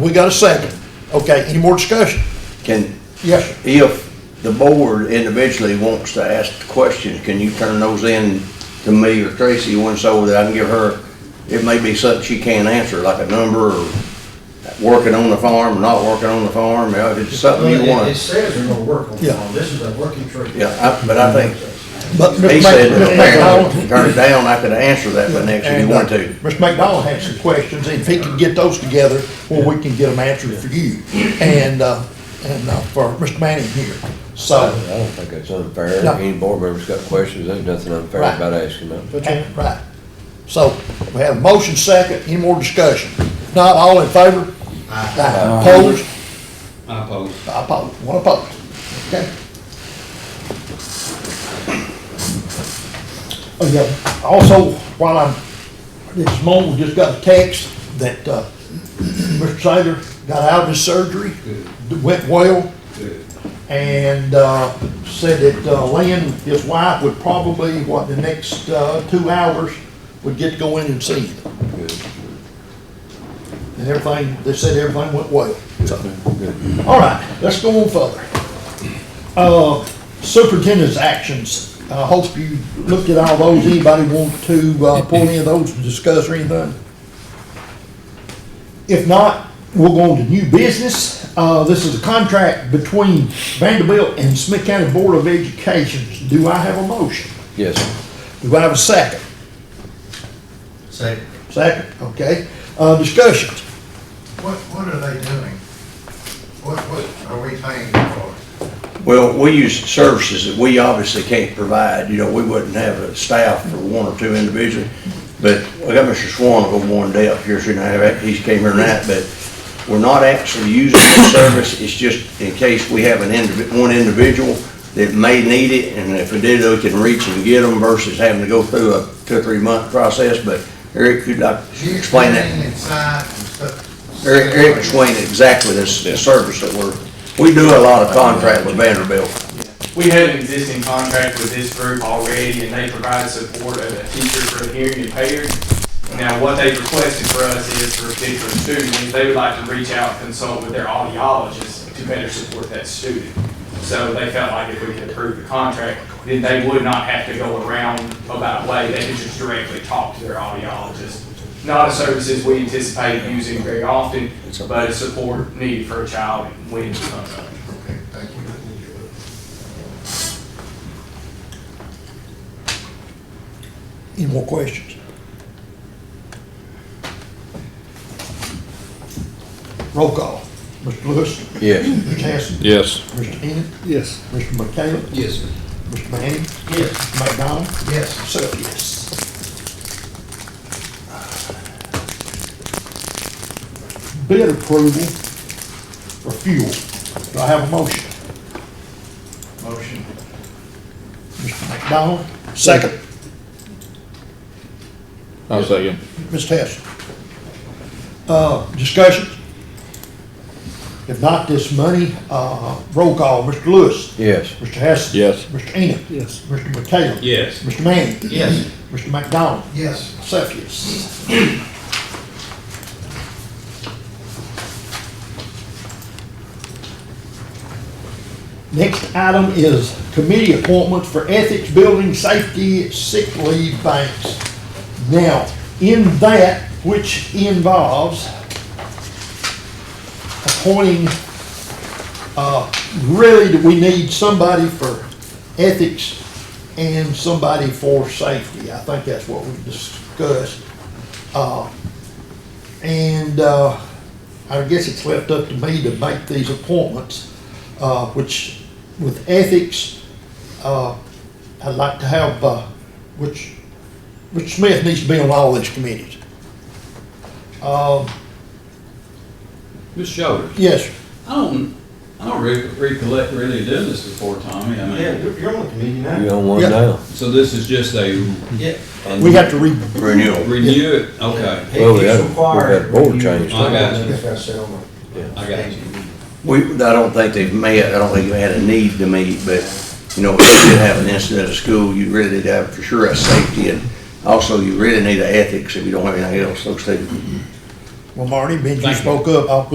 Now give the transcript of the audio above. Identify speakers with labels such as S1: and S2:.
S1: we got a second. Okay, any more discussion?
S2: Can,
S1: Yes, sir.
S2: if the board individually wants to ask questions, can you turn those in to me or Tracy once so that I can give her, it may be something she can't answer, like a number or working on the farm, not working on the farm, you know, if it's something
S3: Well,
S2: you
S3: it- It
S2: want.
S3: says there's no work on
S1: Yeah.
S3: the farm, this is a working tree.
S2: Yeah, I- but I think
S1: But Mr.
S2: he said
S1: Mc- Mr.
S2: that if
S1: McDonald-
S2: Aaron turned it down, I could answer that for next if you
S1: And,
S2: want
S1: uh,
S2: to.
S1: Mr. McDonald had some questions, and if he can get those together, well, we can get them answered for you, and, uh, and uh, for Mr. Manning here, so.
S4: I don't think that's unfair.
S1: No.
S4: Any board member's got questions, there's nothing unfair
S1: Right.
S4: about asking them.
S1: Right. So we have a motion second, any more discussion? If Not all in favor? Aye. Opposed?
S5: I oppose.
S1: Opposed, one opposed. Okay. Oh, yeah. Also, while I'm, this moment, we just got a text that, uh, Mr. Saylor got out of his surgery. Went well
S5: Good.
S1: and uh, said that uh, Lynn, his wife, would probably, what, the next uh, two hours, would get to go in and see him. And everything, they said everything went well. So, All right, let's go on further. Uh, Superintendent's actions, I hope you looked at all those. Anybody want to uh, pull any of those, to discuss or anything? If not, we'll go on to new business. Uh, this is a contract between Vanderbilt and Smith County Board of Education. Do I have a motion?
S4: Yes, sir.
S1: Do I have a second?
S3: Say,
S1: Second, okay. Uh, discussions.
S3: what, what are they doing? What, what are we paying them for?
S2: Well, we use services that we obviously can't provide, you know, we wouldn't have a staff for one or two individuals. But I got Mr. Swan over one day up here, soon I, he's came here tonight, but we're not actually using the service, it's just in case we have an individ, one individual that may need it, and if we did, we can reach and get them versus having to go through a two or three month process, but Eric, could I explain that?
S3: She's inside and stuff.
S2: Eric, Eric explained exactly this, the service that we're, we do a lot of contract with Vanderbilt.
S6: We had an existing contract with this group already, and they provide support of a teacher for the hearing impaired. Now, what they've requested for us is for a particular student, is they would like to reach out and consult with their audiologist to better support that student. So they felt like if we could approve the contract, then they would not have to go around about way, they could just directly talk to their audiologist. Not a services we anticipate using very often, but a support needed for a child when it comes up.
S3: Okay, thank you.
S1: Any more questions? Roll call. Mr. Lewis.
S4: yes.
S1: Mr. Hassan.
S7: Yes.
S1: Mr. Enid. Yes. Mr. McCallum. Yes. Mr. Manning.
S3: Yes,
S1: Mr. McDonald.
S3: yes.
S1: So, yes. Bid approval for fuel. Do I have a motion?
S3: Motion.
S1: Mr. McDonald? Second.
S7: I'll second.
S1: Ms. Tess? Uh, discussion? If not this money, uh, roll call, Mr. Lewis.
S4: Yes.
S1: Mr. Hess.
S7: Yes.
S1: Mr. Ennis. Yes. Mr. McHale.
S5: Yes.
S1: Mr. Manning.
S3: Yes.
S1: Mr. McDonald.
S3: Yes.
S1: Myself, yes. Next item is committee appointments for ethics, building, safety, sick leave banks. Now, in that, which involves appointing, uh, really, we need somebody for ethics and somebody for safety. I think that's what we discussed. Uh, And uh, I guess it's left up to me to make these appointments, uh, which with ethics, uh, I'd like to have, uh, which, which Smith needs to be on all these committees. Um,
S5: Ms. Shoulders,
S1: Yes, sir.
S5: I don't, I don't re- recollect really doing this before, Tommy. I mean,
S3: you're on the committee
S4: You on one
S1: Yeah.
S4: now?
S5: so this is just a
S3: Yeah.
S1: we have to read,
S2: Renewal.
S5: renew it? Okay,
S4: Well, we had, we had board change.
S5: I got you.
S4: Yeah.
S5: I got you.
S2: We, I don't think they've met, I don't think they had a need to meet, but, you know, if you did have an incident at school, you really need to have for sure a safety and also you really need a ethics if you don't have anything else, those two.
S1: well, Marty, Benji
S5: Thank you.
S1: spoke up, Uh, I'll put